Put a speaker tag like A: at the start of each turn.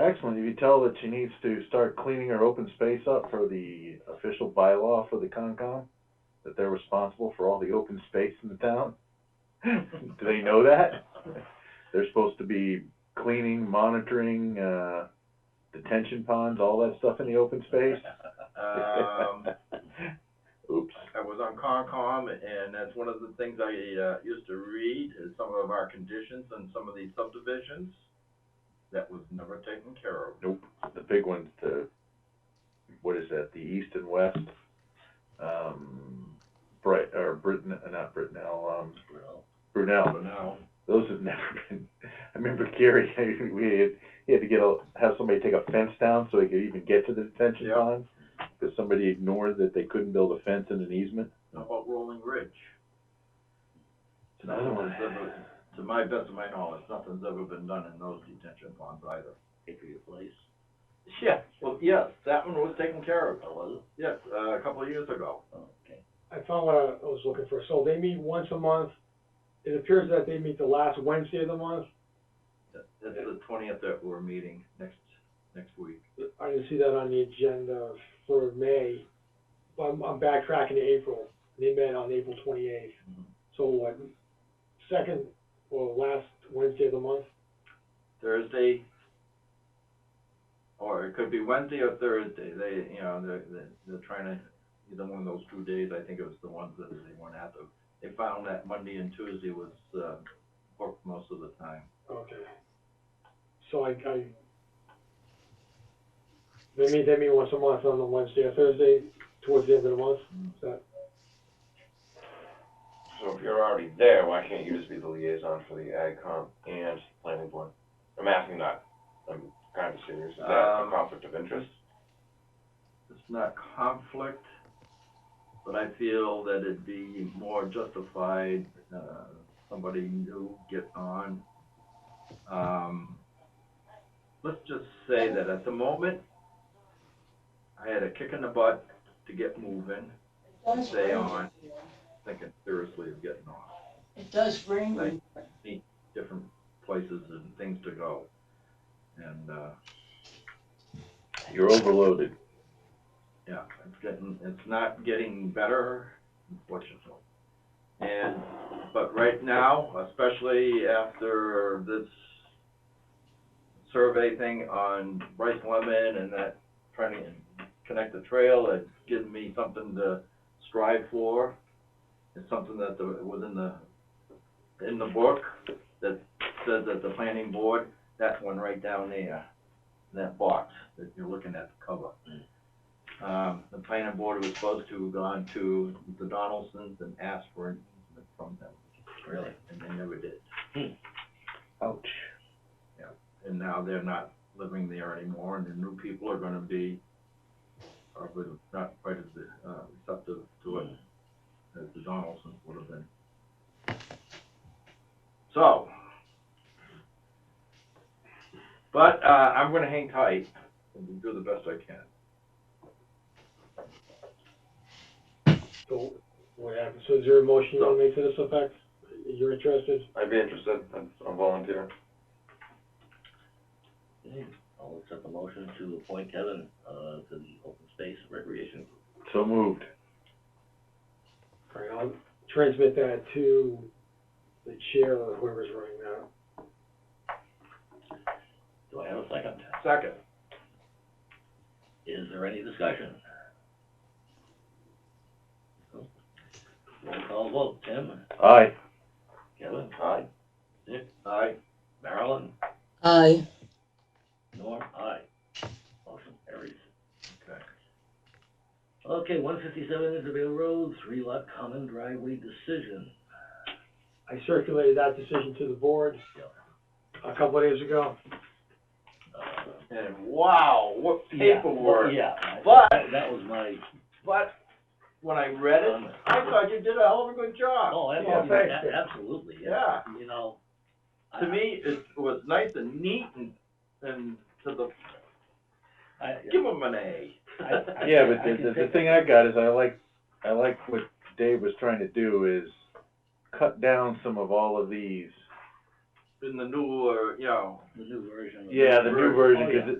A: And if you tell that she needs to start cleaning her open space up for the official bylaw for the Concom, that they're responsible for all the open space in the town, do they know that? They're supposed to be cleaning, monitoring, uh, detention ponds, all that stuff in the open space?
B: Um,
A: Oops.
B: I was on Concom, and that's one of the things I, uh, used to read, is some of our conditions and some of these subdivisions that was never taken care of.
A: Nope, the big ones, the, what is that, the east and west, um, Bright, or Britton, not Brittenell, um,
B: But
A: Brunel,
B: now,
A: those have never been, I remember Gary, we had, he had to get a, have somebody take a fence down so he could even get to the detention
B: Yeah.
A: pond, because somebody ignored that they couldn't build a fence in an easement.
B: how about Rolling Ridge?
A: It's another one.
B: Nothing's ever- To my best of my knowledge, nothing's ever been done in those detention ponds either.
C: Patriot Place,
B: Yeah, well, yes, that one was taken care of,
C: or Oh, was it?
B: yes, uh, a couple of years ago.
C: Oh, okay.
D: I found what I was looking for. So they meet once a month. It appears that they meet the last Wednesday of the month.
B: That- That's the twentieth that we're meeting next, next week.
D: I didn't see that on the agenda for May. But I'm, I'm backtracking to April. They met on April twenty-eighth.
B: Mhm.
D: So what, second or last Wednesday of the month?
B: Thursday, or it could be Wednesday or Thursday, they, you know, they're, they're- they're trying to, either one of those two days, I think it was the ones that they went after. They found that Monday and Tuesday was, uh, booked most of the time.
D: Okay. So I, I, they meet, they meet once a month on the Wednesday or Thursday towards the end of the month. Is that,
E: So if you're already there, why can't you just be the liaison for the ag comp and planning board? I'm asking that, I'm kind of serious, is that a
B: Um,
E: conflict of interest?
B: It's not conflict, but I feel that it'd be more justified, uh, somebody new get on. Um, let's just say that at the moment, I had a kick in the butt to get moving, to stay on, thinking seriously of getting on
C: It does bring me
B: different places and things to go. And, uh,
A: You're overloaded.
B: Yeah, it's getting, it's not getting better, unfortunately. And, but right now, especially after this survey thing on Bryce Lemon and that trying to connect the trail, it's given me something to strive for. It's something that the, was in the, in the book that says that the planning board, that one right down there, that box that you're looking at the cover um, the planning board was supposed to have gone to the Donaldsons and asked for an easement from them. Really? And they never did.
A: Ouch.
B: And now they're not living there anymore, and the new people are gonna be, probably not quite as, uh, receptive to it as the Donaldsons would have been. So. But, uh, I'm gonna hang tight and do the best I can.
D: so what happened? So is there a motion you wanna make to this effect? You're interested?
E: I'd be interested, I'm, I'm volunteering.
C: Okay, I'll accept the motion to appoint Kevin, uh, to the open space recreation.
A: So moved.
D: All right, I'll transmit that to the chair or whoever's running that.
C: Do I have a second?
B: Second.
C: Is there any discussion? Roll call vote, Tim,
A: Aye.
C: Kevin,
E: Aye.
B: Aye.
C: Marilyn,
F: Aye.
C: Norm, aye. Motion carries.
B: Okay.
C: Okay, one fifty-seven Isabel Road, three lot common driveway decision.
D: I circulated that decision to the board a couple of days ago.
C: Uh,
B: And wow, what
C: yeah,
B: paperwork.
C: Yeah. I-
B: But-
C: That was my
B: But when I read it,
C: comment.
B: I thought you did a hell of a good job.
C: Oh,
B: Yeah,
C: absolutely,
B: thanks.
C: a- absolutely, yeah,
B: Yeah,
C: you know. I-
B: to me, it was nice and neat and, and to the,
C: I,
B: give them an A.
C: I- I-
A: Yeah, but
C: I
A: the,
C: can
A: the, the
C: take
A: thing I got is I like, I like what Dave was trying to do is cut down some of all of these.
B: In the newer, you know,
C: the new version. of- Oh,
A: Yeah, the new version, cause it-